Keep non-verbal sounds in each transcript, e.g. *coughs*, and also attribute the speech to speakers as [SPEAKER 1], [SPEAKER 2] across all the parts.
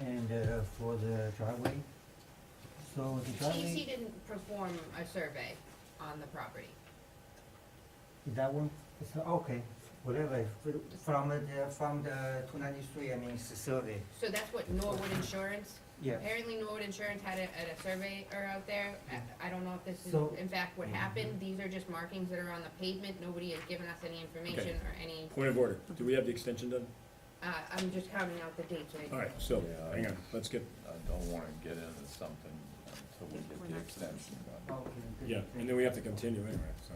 [SPEAKER 1] and uh, for the driveway. So the
[SPEAKER 2] TC
[SPEAKER 1] driveway,
[SPEAKER 2] didn't perform a survey on the property.
[SPEAKER 1] that one, it's, not- okay, whatever, from the, from the two ninety-three, I mean, it's a survey,
[SPEAKER 2] So that's what Norwood Insurance,
[SPEAKER 1] yeah.
[SPEAKER 2] apparently Norwood Insurance had a, had a surveyor out there. I- I don't know if this is
[SPEAKER 1] So-
[SPEAKER 2] in fact
[SPEAKER 3] Mhm.
[SPEAKER 2] what happened. These are just markings that are on the pavement. Nobody has given us any information or any,
[SPEAKER 3] Point of order, do we have the extension done?
[SPEAKER 2] uh, I'm just counting out the dates right
[SPEAKER 3] All
[SPEAKER 2] now.
[SPEAKER 3] right, so,
[SPEAKER 4] Yeah, I-
[SPEAKER 3] hang on, let's get,
[SPEAKER 4] I don't wanna get into something until we get the extension done.
[SPEAKER 1] Okay, good,
[SPEAKER 3] yeah,
[SPEAKER 1] good.
[SPEAKER 3] and then we have to continue anyway, so.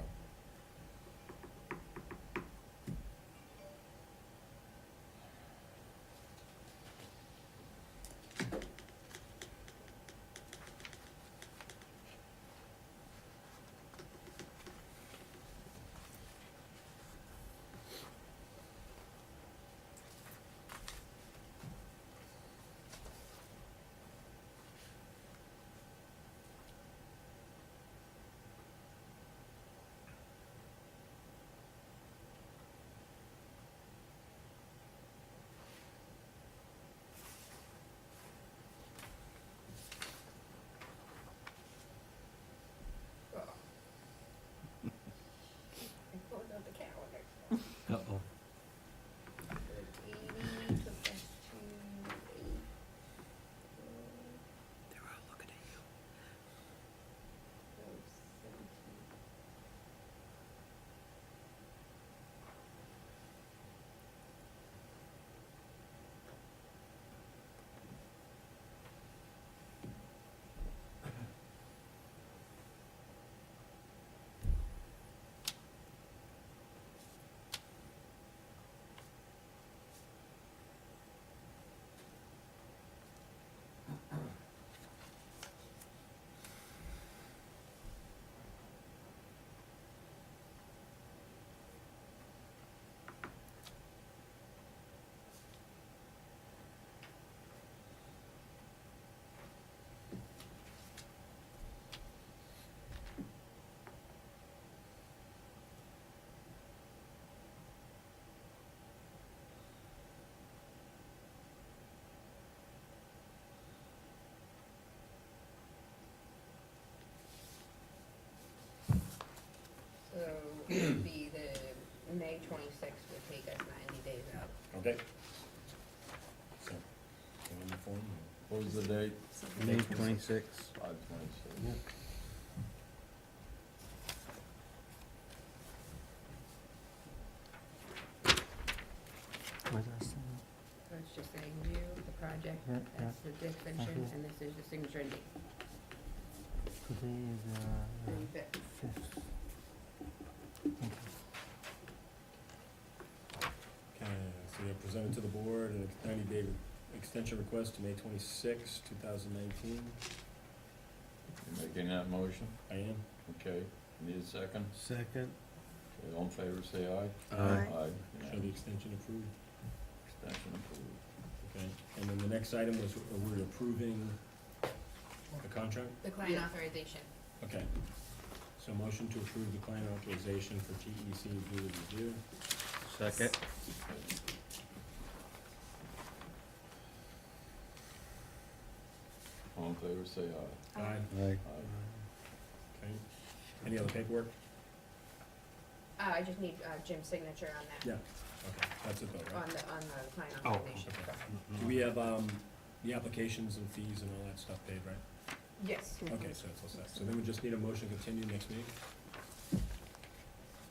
[SPEAKER 2] Oh. I pulled out the calendar.
[SPEAKER 5] Uh-oh.
[SPEAKER 2] Eighty took us to eight.
[SPEAKER 5] They're all looking at you.
[SPEAKER 2] So it would be the May twenty-sixth would take us ninety days out.
[SPEAKER 3] Okay. So, can we move forward?
[SPEAKER 4] What was the date?
[SPEAKER 5] May twenty-six.
[SPEAKER 4] Five twenty-six.
[SPEAKER 1] Where's our sign?
[SPEAKER 2] Let's just say you, the project,
[SPEAKER 1] Yeah,
[SPEAKER 2] that's the definition, and this is the signature and date,
[SPEAKER 1] Today is, uh,
[SPEAKER 2] thirty fifth.
[SPEAKER 1] fifth.
[SPEAKER 3] Okay, so you have presented to the board an ninety-day extension request to May twenty-six, two thousand nineteen.
[SPEAKER 4] You making that motion?
[SPEAKER 3] I am?
[SPEAKER 4] Okay, need a second?
[SPEAKER 5] Second.
[SPEAKER 4] Okay, All in favor, say aye. Aye.
[SPEAKER 5] Aye.
[SPEAKER 3] Shall the
[SPEAKER 4] unanimous.
[SPEAKER 3] extension approved?
[SPEAKER 4] Extension approved.
[SPEAKER 3] Okay, and then the next item was, uh, we're approving the contract?
[SPEAKER 2] The client authorization.
[SPEAKER 3] Okay. So motion to approve the client authorization for TEC due review.
[SPEAKER 5] Second.
[SPEAKER 4] All in favor, say aye.
[SPEAKER 3] Aye.
[SPEAKER 5] Aye.
[SPEAKER 4] Aye.
[SPEAKER 3] Okay. Any other paperwork?
[SPEAKER 2] Uh, I just need, uh, Jim's signature on that,
[SPEAKER 3] Yeah. Okay, that's it though, right?
[SPEAKER 2] on the, on the client
[SPEAKER 1] Oh,
[SPEAKER 2] authorization.
[SPEAKER 3] okay. Do we have, um, the applications and fees and all that stuff paid, right?
[SPEAKER 2] Yes,
[SPEAKER 3] Okay, so it's all set. So then we just need a motion to continue next week,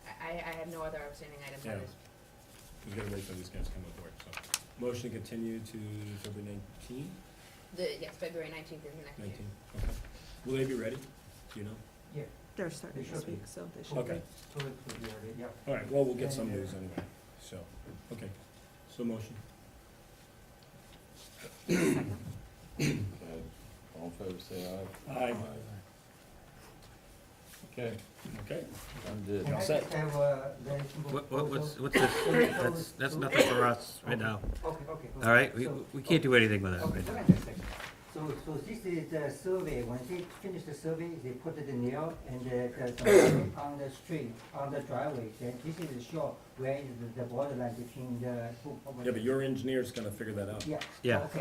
[SPEAKER 2] I, I I have no other outstanding items
[SPEAKER 3] Yeah.
[SPEAKER 2] on this.
[SPEAKER 3] because we gotta wait for these guys to come aboard, so. Motion to continue to February nineteen,
[SPEAKER 2] The, yes, February nineteenth is the next meeting.
[SPEAKER 3] nineteen, okay. Will they be ready? Do you know?
[SPEAKER 6] They're starting
[SPEAKER 1] They
[SPEAKER 6] this
[SPEAKER 1] should be.
[SPEAKER 6] week, so they should.
[SPEAKER 3] Okay.
[SPEAKER 1] Two weeks will be already, yeah.
[SPEAKER 3] All right, well, we'll get
[SPEAKER 1] Yeah,
[SPEAKER 3] some
[SPEAKER 1] yeah.
[SPEAKER 3] news anyway, so, okay. So motion.
[SPEAKER 4] Okay, all in favor, say aye.
[SPEAKER 3] Aye.
[SPEAKER 4] Okay,
[SPEAKER 3] Okay,
[SPEAKER 4] I'm did.
[SPEAKER 1] Can I
[SPEAKER 3] Set.
[SPEAKER 1] just have, uh, the
[SPEAKER 5] What, what, what's,
[SPEAKER 1] proposal?
[SPEAKER 5] what's this?
[SPEAKER 1] Sorry,
[SPEAKER 5] That's,
[SPEAKER 1] sorry.
[SPEAKER 5] that's nothing for us right now.
[SPEAKER 1] Okay, okay. okay.
[SPEAKER 5] All right, we,
[SPEAKER 1] So-
[SPEAKER 5] we can't do anything with that
[SPEAKER 1] Okay,
[SPEAKER 5] right now.
[SPEAKER 1] wait a second. So, so this is the survey, when they finish the survey, they put it in there, and the, the, the- *coughs* on the street, on the driveway, then this is show where is the- the borderline between the two properties.
[SPEAKER 3] yeah, but your engineer's gonna figure that out.
[SPEAKER 1] Yeah.
[SPEAKER 5] Yeah.
[SPEAKER 1] Okay,